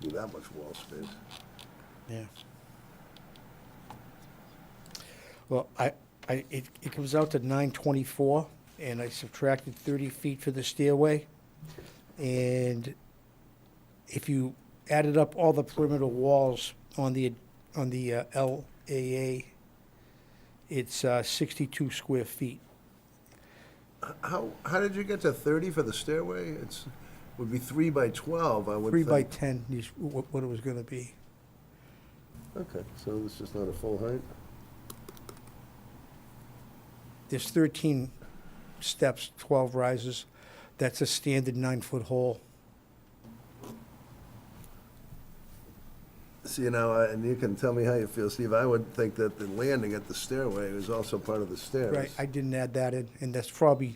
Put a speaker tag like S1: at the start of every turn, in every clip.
S1: do that much wall space.
S2: Yeah. Well, I, I, it, it comes out to nine twenty-four, and I subtracted thirty feet for the stairway. And if you added up all the perimeter walls on the, on the uh, LAA, it's uh, sixty-two square feet.
S1: How, how did you get to thirty for the stairway? It's, would be three by twelve, I would
S2: Three
S1: think.
S2: by ten is what, what it was gonna be.
S1: Okay, so this is not a full height?
S2: There's thirteen steps, twelve rises. That's a standard nine-foot hole.
S1: See, you know, I- and you can tell me how you feel, Steve, I would think that the landing at the stairway is also part of the stairs.
S2: Right, I didn't add that in, and that's probably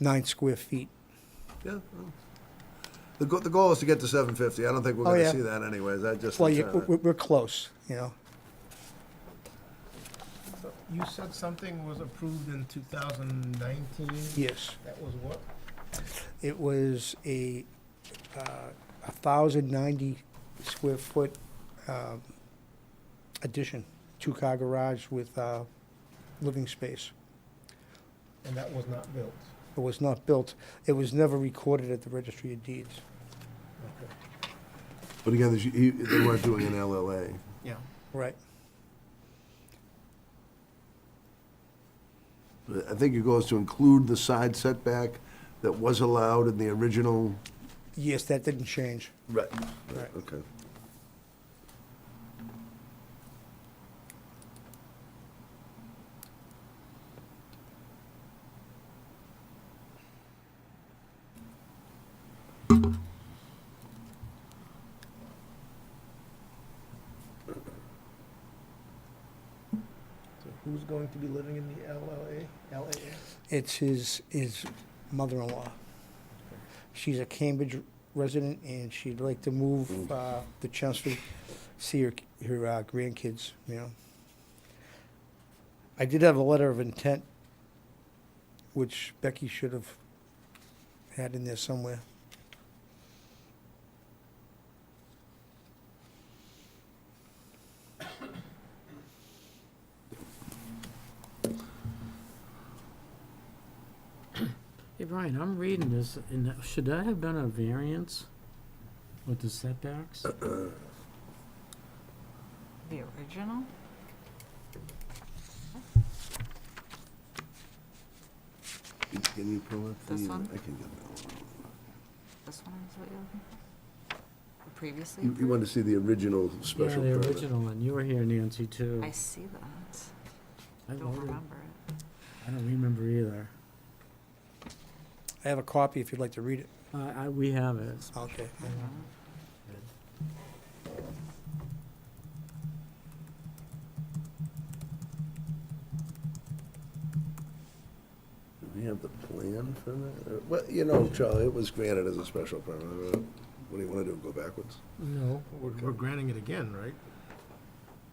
S2: nine square feet.
S1: Yeah. well. The goal, the goal is to get to seven fifty, I don't think we're
S2: Oh,
S1: gonna
S2: yeah.
S1: see that anyways, I just.
S2: Well, you- we're, we're close, you know.
S3: You said something was approved in 2019?
S2: Yes,
S3: That was what?
S2: it was a, uh, a thousand ninety square foot um, addition, two-car garage with uh, living space.
S3: And that was not built?
S2: It was not built, it was never recorded at the registry of deeds.
S3: Okay.
S1: But again, there's- he- they weren't doing an LLA.
S3: Yeah.
S2: Right,
S1: But I think your goal is to include the side setback that was allowed in the original.
S2: yes, that didn't change.
S1: Right.
S2: Right.
S1: Okay.
S3: So who's going to be living in the LLA, LAA?
S2: It's his, his mother-in-law. She's a Cambridge resident, and she'd like to move uh, to Chelmsford, see her, her uh, grandkids, you know. I did have a letter of intent, which Becky should have had in there somewhere.
S4: Hey, Brian, I'm reading this, and should that have been a variance with the setbacks?
S5: The original?
S1: Can you pull up the?
S5: This one?
S1: I can get that one.
S5: This one is what you're looking for? Previously
S1: You, you want
S5: approved?
S1: to see the original
S4: Yeah,
S1: special
S4: the
S1: permit?
S4: original one. You were here, Nancy, too.
S5: I see that.
S4: I
S5: Don't
S4: voted.
S5: remember it.
S4: I don't remember either.
S2: I have a copy if you'd like to read it.
S4: I, I, we have it.
S2: Okay.
S5: I don't know.
S1: Do we have the plan for that? Or- Well, you know, Charlie, it was granted as a special permit. Uh, What do you want to do, go backwards?
S4: No.
S3: We're we're granting it again, right?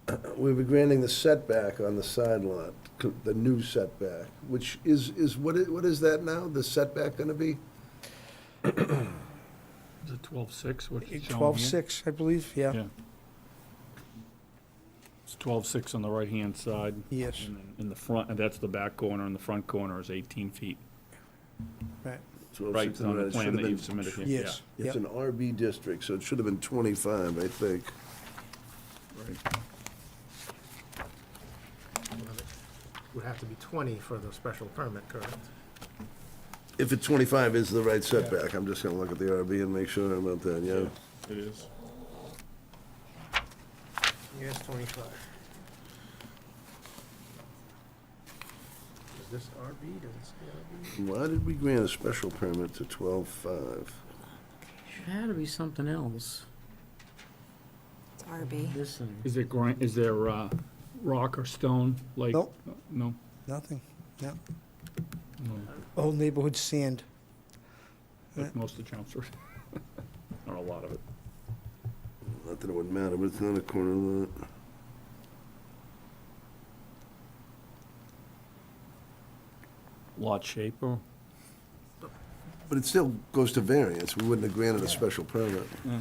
S1: Uh, We were granting the setback on the side lot, co- the new setback, which is, is, what is, what is that now? The setback going to be?
S6: Is it twelve-six, what it's shown here?
S2: Twelve-six, I believe, yeah,
S6: Yeah. It's twelve-six on the right-hand side.
S2: Yes.
S6: And then in the front, and that's the back corner, and the front corner is eighteen feet.
S2: right,
S6: Right on the plan that you've submitted here. yeah.
S2: yes, yeah.
S1: It's an RB district, so it should have been 25, I think.
S6: Right.
S3: Would have to be 20 for the special permit, correct?
S1: If it's 25 is the right setback, I'm just going to look at the RB and make sure I'm not that, yeah.
S6: It is.
S3: Yes, 25. Is this RB? Does it say
S1: Why did we grant a special permit to 12.5?
S4: There had to be something else.
S5: It's RB.
S4: This thing.
S6: Is it gran, is there, uh, rock or stone, like?
S2: Nope.
S6: No?
S2: nothing, no.
S6: No.
S2: Old neighborhood sand, Eh.
S6: Like most of Chelmsford. Not a lot of it.
S1: Not that it would matter, but it's not a corner lot.
S6: Lot shape or?
S1: But it still goes to variance. We wouldn't have granted a special permit.
S6: Yeah.